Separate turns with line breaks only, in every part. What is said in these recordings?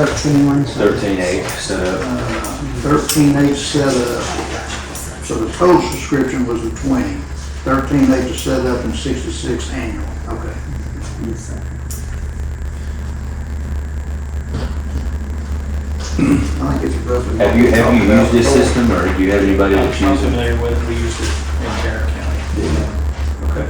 Thirteen instead of
thirteen eight instead of,
Thirteen eight set up. So the total subscription was the twenty. Thirteen eight to set up and sixty-six annual. Okay. I think it's roughly.
have you, have you used this system or do you have anybody
I'm
that's
I'm
using it?
familiar with it, we used it in Tarrant County. Okay.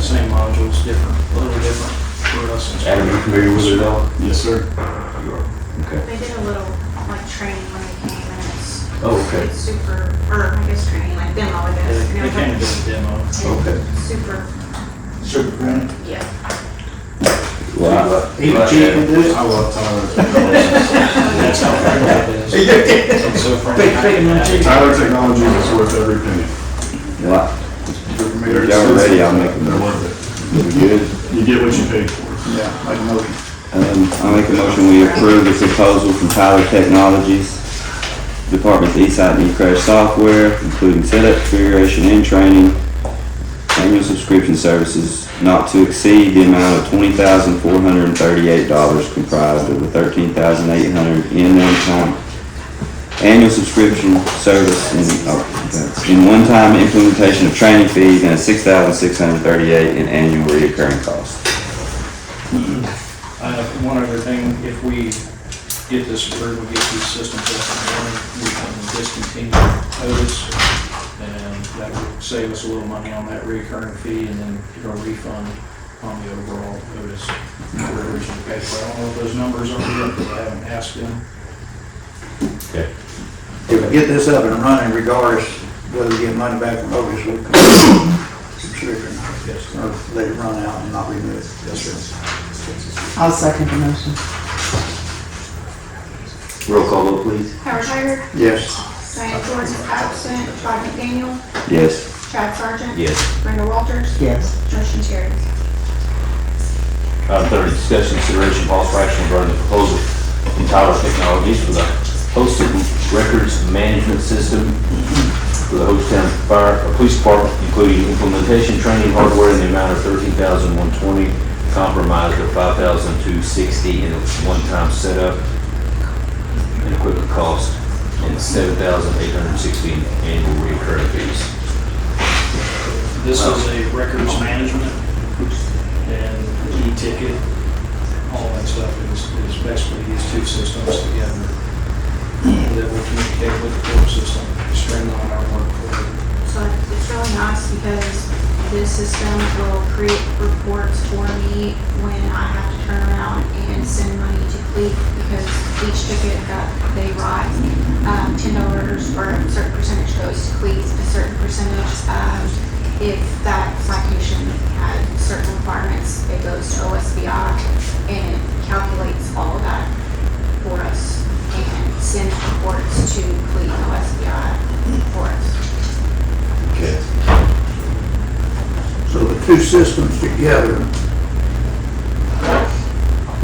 Same modules, different, a little different for us. and stuff.
Adam, you familiar with it at all?
Yes, sir.
They did a little like training when they came and it's,
Oh, okay.
it's super, or I guess training like demo, I
They
guess. and
they
it
came and did
was
a demo.
Okay.
like Super,
Super grant.
yeah.
Well, I-
He cheated this.
I love Tyler.
That's how friendly it is. It's so friendly.
Tyler Technologies is worth every penny.
well,
They're
They're down ready, I'll make them.
They're worth
we good.
it. You get what you pay for.
Yeah, like motion.
Um, I make a motion, we approve the proposal from Tyler Technologies, Departments Eastside and Crash Software, including setup, configuration, and training, annual subscription services not to exceed the amount of twenty thousand four hundred and thirty-eight dollars comprised of the thirteen thousand eight hundred in one-time annual subscription service in, oh, that's- in one-time implementation of training fees and six thousand six hundred thirty-eight in annual recurring costs.
Uh, One other thing, if we get this approved, we get these systems up and running, we can discontinue Otis, and that would save us a little money on that recurring fee, and then get a refund on the overall Otis we originally paid for. I don't know if those numbers are real, because I haven't asked them.
If we get this up and running regardless whether we get money back from Otis or come subscription, or let it run out and not renew it. Yes, sir.
I'll second the motion.
Roll call vote, please.
Howard Hager,
Yes.
Diane Jordan absent, Todd McDaniel,
Yes.
Chad Sargent.
Yes.
Brenda Walters.
Yes.
Motion carries.
Item thirty, discussion consideration possible action regarding the proposal from Tyler Technologies for the hosted records management system for the Hochtown Fire, uh, Police Department, including implementation, training, hardware, in the amount of thirteen thousand one twenty, compromised at five thousand two sixty, and a one-time setup and equipment cost, and seven thousand eight hundred sixty annual recurring fees.
This is a records management and e-ticket, all that stuff is, is basically these two systems together that will communicate with the court system, streamline our work. for
So it's really nice because this system will create reports for me when I have to turn around and send money to Cleek because each ticket that they write, um, ten dollars or a certain percentage goes to Cleek, a certain percentage, um, if that citation had certain requirements, it goes to OSBI and it calculates all of that for us and sends reports to Cleek and OSBI for us.
So the two systems together,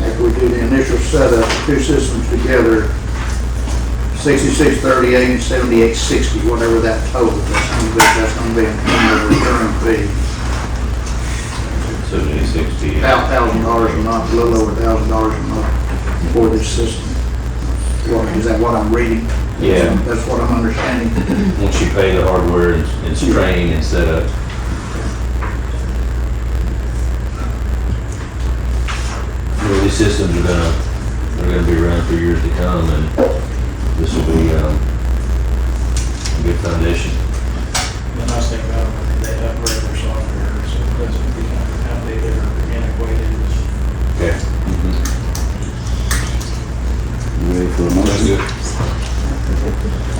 after we do the initial setup, two systems together, sixty-six thirty-eight and seventy-eight sixty, whatever that total, that's gonna be, that's gonna be an annual recurring fee.
Seventy sixty.
About thousand dollars a month, a little over thousand dollars a month for this system. Well, is that what I'm reading?
Yeah.
That's what I'm understanding.
Once you pay the hardware and and strain and set up, Well, these systems are gonna, they're gonna be around for years to come, and this will be, um, a good foundation.
The nice thing about it, when they upgrade their software, so it doesn't become outdated or antiquated.
Okay. Ready for a motion?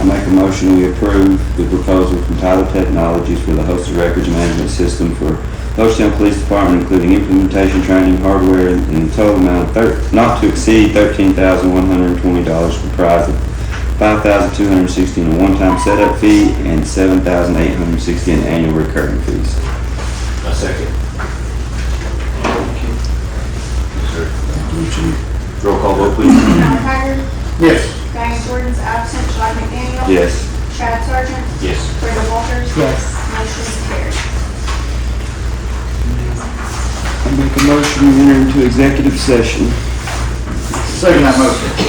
I make a motion, we approve the proposal from Tyler Technologies for the hosted records management system for Hochtown Police Department, including implementation, training, hardware, and in total amount of thir- not to exceed thirteen thousand one hundred and twenty dollars comprised of five thousand two hundred and sixty in a one-time setup fee and seven thousand eight hundred and sixty in annual recurring fees. A second. Roll call vote, please.
Howard Hager,
Yes.
Diane Jordan's absent, Todd McDaniel.
Yes.
Chad Sargent,
Yes.
Brenda Walters.
Yes.
Motion is carried.
I make a motion to enter into executive session.
Second that motion.